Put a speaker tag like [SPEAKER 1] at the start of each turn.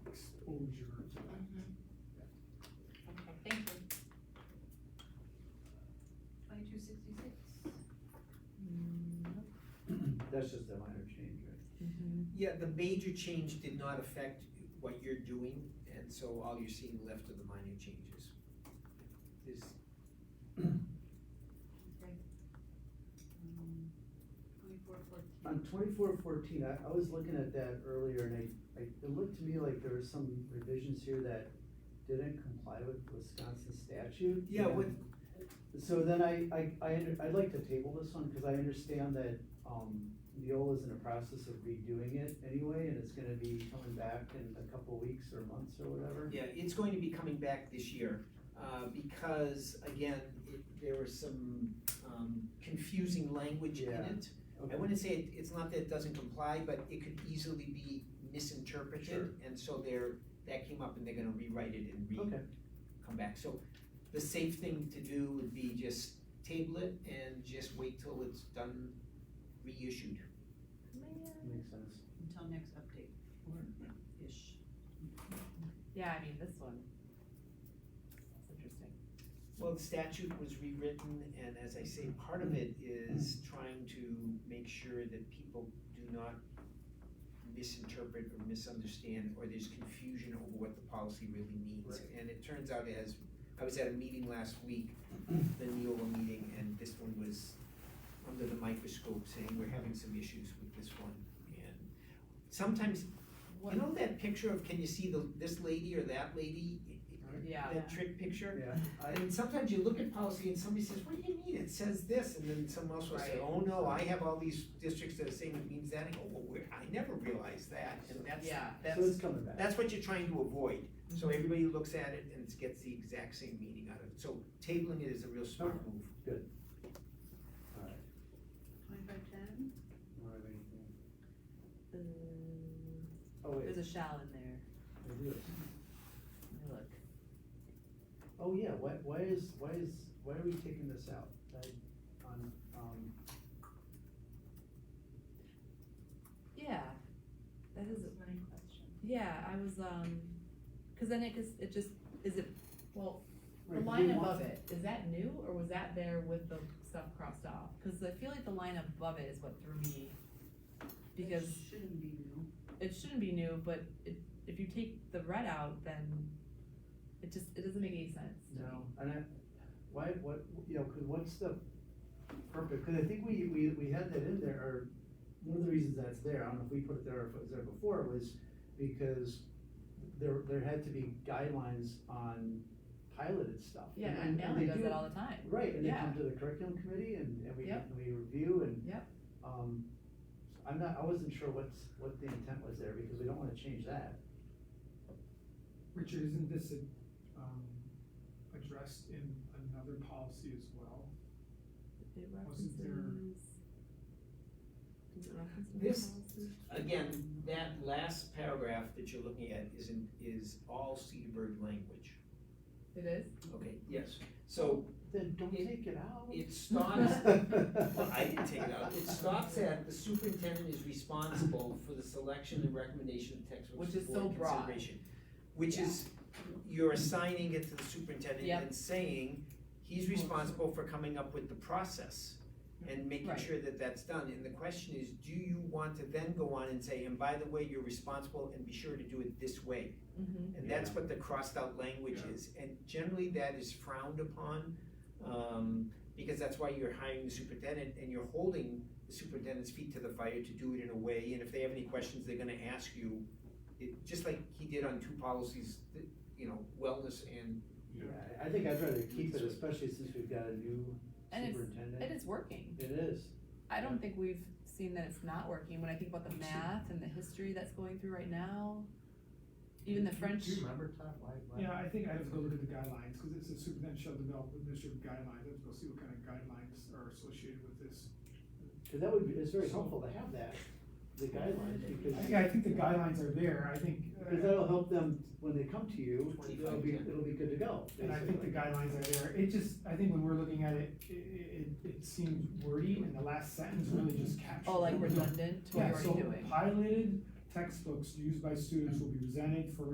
[SPEAKER 1] That's just a minor change, right?
[SPEAKER 2] Yeah, the major change did not affect what you're doing, and so all you're seeing left are the minor changes. Is,
[SPEAKER 3] Twenty-four fourteen.
[SPEAKER 4] On twenty-four fourteen, I, I was looking at that earlier and I, I, it looked to me like there were some revisions here that didn't comply with Wisconsin statute.
[SPEAKER 2] yeah, what,
[SPEAKER 4] So then I, I, I, under- I'd like to table this one, cause I understand that, um, Neola's in the process of redoing it anyway, and it's gonna be coming back in a couple weeks or months or whatever.
[SPEAKER 2] yeah, it's going to be coming back this year, uh, because again, it, there was some, um, confusing language in
[SPEAKER 4] Yeah.
[SPEAKER 2] it. I
[SPEAKER 4] Okay.
[SPEAKER 2] wouldn't say it, it's not that it doesn't comply, but it could easily be misinterpreted,
[SPEAKER 4] Sure.
[SPEAKER 2] and so they're, that came up and they're gonna rewrite it and re,
[SPEAKER 4] Okay,
[SPEAKER 2] come back. So the safe thing to do would be just table it and just wait till it's done reissued.
[SPEAKER 4] makes sense.
[SPEAKER 3] Until next update, or-ish.
[SPEAKER 5] Yeah, I mean, this one. It's interesting.
[SPEAKER 2] Well, the statute was rewritten, and as I say, part of it is trying to make sure that people do not misinterpret or misunderstand, or there's confusion over what the policy really means.
[SPEAKER 4] Right.
[SPEAKER 2] And it turns out as, I was at a meeting last week, the Neola meeting, and this one was under the microscope saying, we're having some issues with this one. And sometimes, you know that picture of, can you see the, this lady or that lady?
[SPEAKER 5] Yeah.
[SPEAKER 2] That trick picture?
[SPEAKER 4] Yeah, I,
[SPEAKER 2] Uh, And sometimes you look at policy and somebody says, what do you mean, it says this, and then someone else will say,
[SPEAKER 5] Right.
[SPEAKER 2] oh no, I have all these districts that are saying it means that, and go, well, where, I never realized that, and that's,
[SPEAKER 5] Yeah.
[SPEAKER 4] so it's Mm-hmm.
[SPEAKER 2] that's,
[SPEAKER 4] coming back.
[SPEAKER 2] that's what you're trying to avoid. So everybody looks at it and gets the exact same meaning out of it, so tabling it is a real smart
[SPEAKER 4] Okay.
[SPEAKER 2] move.
[SPEAKER 4] Alright,
[SPEAKER 3] Twenty-five ten?
[SPEAKER 4] I don't have anything.
[SPEAKER 5] Uh,
[SPEAKER 4] Oh, wait,
[SPEAKER 5] Mm. There's a shell in there.
[SPEAKER 4] I do.
[SPEAKER 5] Let me look.
[SPEAKER 4] Oh, yeah, why, why is, why is, why are we taking this out? That, on, um,
[SPEAKER 5] Yeah. That is,
[SPEAKER 3] That's my question.
[SPEAKER 5] yeah, I was, um, cause then it, cause it just, is it, well, the
[SPEAKER 4] right,
[SPEAKER 5] line
[SPEAKER 4] we want-
[SPEAKER 5] above it, is that new or was that there with the stuff crossed off? Cause I feel like the line above it is what threw me. Because
[SPEAKER 3] It Shouldn't be new.
[SPEAKER 5] it shouldn't be new, but it, if you take the red out, then it just, it doesn't make any sense to me.
[SPEAKER 4] No, and I, why, what, you know, cause what's the purpose, cause I think we, we, we had that in there, or one of the reasons that's there, I don't know if we put it there or if it was there before, was because there, there had to be guidelines on piloted stuff.
[SPEAKER 5] Yeah,
[SPEAKER 4] and- and
[SPEAKER 5] and
[SPEAKER 4] they
[SPEAKER 5] Manly does
[SPEAKER 4] do-
[SPEAKER 5] that all the time.
[SPEAKER 4] Right, and they
[SPEAKER 5] Yeah.
[SPEAKER 4] come to the curriculum committee and, and we,
[SPEAKER 5] Yep.
[SPEAKER 4] and we review and.
[SPEAKER 5] Yep.
[SPEAKER 4] Um, I'm not, I wasn't sure what's, what the intent was there, because we don't wanna change that.
[SPEAKER 6] Richard, isn't this, um, addressed in another policy as well?
[SPEAKER 5] It
[SPEAKER 6] Wasn't there-
[SPEAKER 5] references. Does it reference the
[SPEAKER 2] This-
[SPEAKER 5] policy?
[SPEAKER 2] Again, that last paragraph that you're looking at is in, is all Cedarburg language.
[SPEAKER 5] It is?
[SPEAKER 2] Okay, yes. So
[SPEAKER 4] Then don't
[SPEAKER 2] It-
[SPEAKER 4] take it out.
[SPEAKER 2] it starts Well, I didn't take it out. It stops at the superintendent is responsible for the selection and recommendation of textbooks
[SPEAKER 5] Which is
[SPEAKER 2] for board
[SPEAKER 5] so broad.
[SPEAKER 2] consideration. Which is, you're assigning it to the superintendent
[SPEAKER 5] Yep.
[SPEAKER 2] and saying, he's responsible for coming up with the process and making
[SPEAKER 5] Right.
[SPEAKER 2] sure that that's done. And the question is, do you want to then go on and say, and by the way, you're responsible and be sure to do it this way?
[SPEAKER 5] Mm-hmm.
[SPEAKER 2] And that's what the crossed out language
[SPEAKER 6] Yeah.
[SPEAKER 2] is, and generally that is frowned upon, um, because that's why you're hiring the superintendent and you're holding the superintendent's feet to the fire to do it in a way, and if they have any questions, they're gonna ask you. It, just like he did on two policies, th- you know, wellness and,
[SPEAKER 4] Yeah, I I think I'd rather keep it, especially since we've got a new
[SPEAKER 5] And it's- It
[SPEAKER 4] superintendent.
[SPEAKER 5] is working.
[SPEAKER 4] It is,
[SPEAKER 5] I don't think we've seen that it's not working. When I think about the math and the history that's going through right now, even the French.
[SPEAKER 1] remember, Todd, why,
[SPEAKER 6] Yeah, I think I have to go look at the guidelines, cause it says superintendent shall develop administrative guidelines, I have to go see what kind of guidelines are associated with this.
[SPEAKER 4] cause that would be, it's very helpful to have that, the guidelines,
[SPEAKER 6] I
[SPEAKER 4] because,
[SPEAKER 6] think, I think the guidelines are there, I think,
[SPEAKER 4] because
[SPEAKER 6] uh,
[SPEAKER 4] that'll help them, when they come to you, it'll be,
[SPEAKER 2] 25, yeah.
[SPEAKER 4] it'll be good to go,
[SPEAKER 6] and I think the
[SPEAKER 4] basically.
[SPEAKER 6] guidelines are there, it just, I think when we're looking at it, i- i- it, it seems wordy, and the last sentence really just captures.
[SPEAKER 5] Oh, like
[SPEAKER 6] what we're doing.
[SPEAKER 5] redundant to what we're already doing.
[SPEAKER 6] Yeah, so piloted textbooks used by students will be presented for